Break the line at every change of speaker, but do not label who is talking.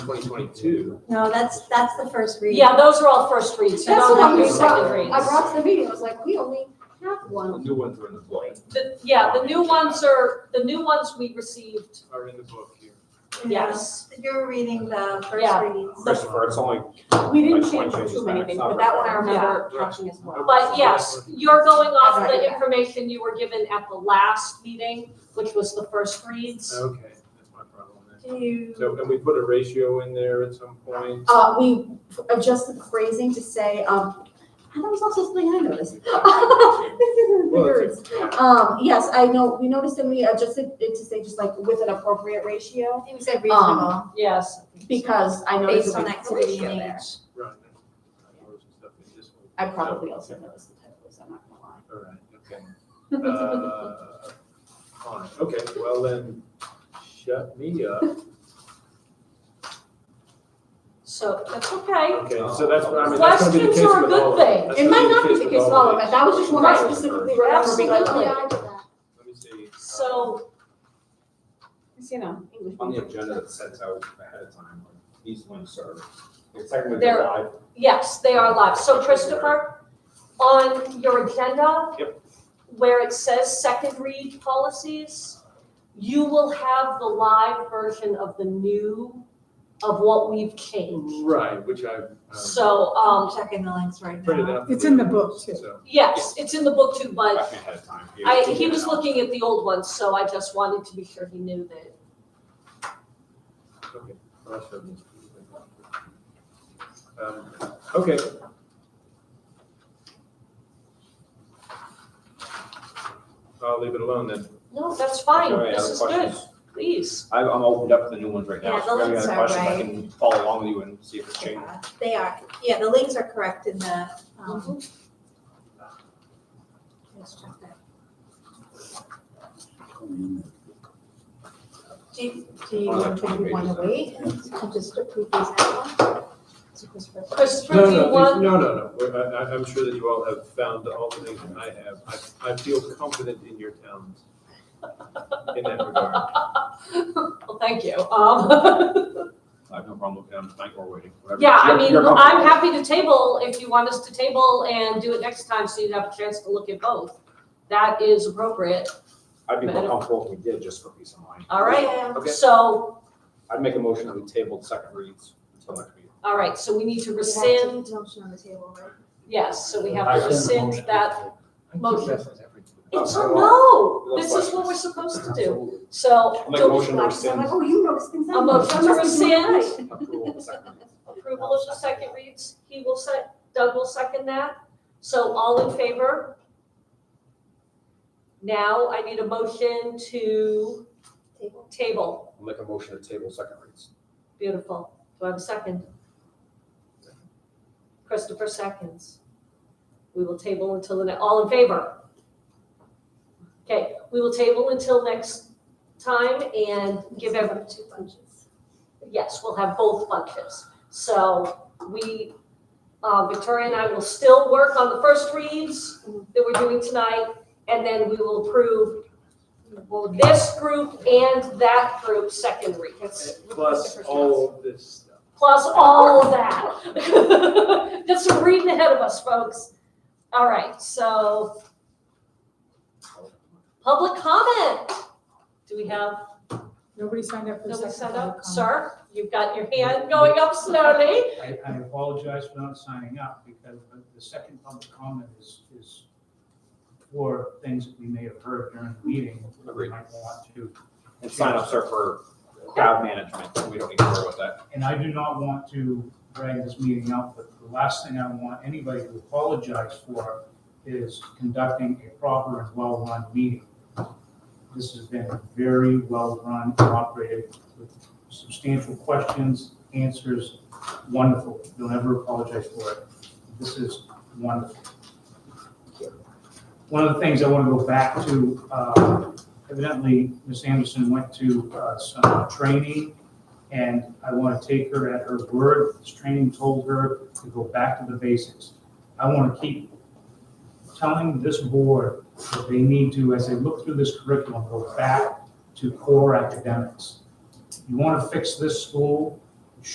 2022.
No, that's, that's the first read.
Yeah, those are all first reads, so
That's
don't
what
have
I
your
was-
second
I
reads.
brought to the meeting, I was like, we only have
The
one.
new ones are in the book,
The- Yeah, the new ones are, the new ones we received,
are in the book here.
yes.
You're reading the first
Yeah.
readings.
Christopher, it's only,
We
Like,
didn't
one
change
changes
too
back,
many
it's
things,
not
but
very
that one I
bad.
remember catching as well.
But yes, you're going off the information you were given at the last meeting, which was the first reads.
Okay, that's my problem then.
Do you?
So, and we put a ratio in there at some point.
Uh, we adjusted the phrasing to say, um, and that was also something I noticed. This isn't
Well,
yours. Um, yes, I know, we noticed and we adjusted it to say just like with an appropriate ratio,
You said
Um,
reasonable,
Yes.
because I noticed.
based on
that
activity and age.
Right. Typos and stuff in this one.
I probably also noticed the typos, I'm not gonna lie.
All right, okay. Uh, Fine, okay, well then, shut me up.
So that's okay.
Okay, so that's what I mean. that's gonna be the
Questions
case
are a
with all
good
of them.
thing.
That's
It might
gonna
not be the case
with
at all,
of
but
them.
that was just one I
Right.
specifically remember being like,
Absolutely.
oh, yeah, I did that.
Let me see.
So,
It's, you know, English.
on the agenda that sets out ahead of time, like, these links are, it's technically
They're-
live.
yes, they are live. So Christopher, on your agenda, where it says second read policies, you will have the live version of the new, of what we've changed.
Right, which I've. um,
So,
I'm
um,
checking the links right
printed
now.
out.
It's in the book, too.
So,
yes, it's in the book too, but
Back ahead of time. You
I,
have to
he
do
was
that.
looking at the old ones, so I just wanted to be sure he knew that.
okay. Well, that's what it means. Um, Okay. I'll leave it alone then.
No, that's
Okay,
fine.
any
This
other
is good.
questions?
Please.
I've, I'm opened up to the new ones right now.
Yeah,
so
the
if you have any other
links are
questions, I
right.
can follow along with you and see if it's changed.
They are, yeah, the links are correct in the, um,
Mm-hmm.
let's check that.
Do you, do you want to, do you want to wait and just approve these now? So Christopher-
Christopher,
No,
do you
no, please-
want?
no, no, no, We're- I, I, I'm sure that you all have found all the things that I have. I, I feel confident in your towns in that regard.
Well, thank you. Um,
I have no problem looking at them tonight or waiting, whatever.
yeah, I
You're-
mean,
you're comfortable.
I'm happy to table if you want us to table and do it next time so you'd have a chance to look at both. That is appropriate.
I'd be more comfortable if we did, just for peace of mind.
All right.
Yeah.
Okay.
So,
I'd make a motion that we tabled second reads until next meeting.
all right, so we need to
We have to
rescind,
Motion on the table, right?
yes, so we have to
I
rescind that. motion. It's,
I
no,
love
this is what we're
questions.
supposed to do. So,
I'll make a
do
motion to
I'm
rescind
like, oh, you noticed things I
A
noticed.
motion to
I must be doing it
rescind.
right.
approval of the second reads.
approval of the second reads, he will sec, Doug will second that. So all in favor? Now I need a motion to
Table.
table.
I'll make a motion to table second reads.
Beautiful. Do I have a second? Christopher seconds. We will table until the, ne- all in favor? Okay, we will table until next time and give every,
Two bunches.
Yes, we'll have both bunches. So we, uh, Victoria and I will still work on the first reads that we're doing tonight, and then we will approve well, this group and that group second reads,
Plus all of this stuff.
plus all of that. Just some reading ahead of us, folks. All right, so public comment. Do we have
Nobody signed up for a
Nobody
second.
set
public
up,
comment.
sir, you've got your hand going up slowly.
I, I apologize for not signing up because the- the second public comment is, is for things that we may have heard during the meeting. that we
Agreed.
Might want to,
And sign up, sir, for crowd management. We don't need to worry about that.
and I do not want to drag this meeting out, but the last thing I want anybody to apologize for is conducting a proper and well-run meeting. This has been very well-run, operated with substantial questions, answers, wonderful. Don't ever apologize for it. This is wonderful. One of the things I want to go back to, uh, evidently, Ms. Anderson went to uh, some training and I want to take her at her word. This training told her to go back to the basics. I want to keep telling this board that they need to, as they look through this curriculum, go back to core academics. You want to fix this school,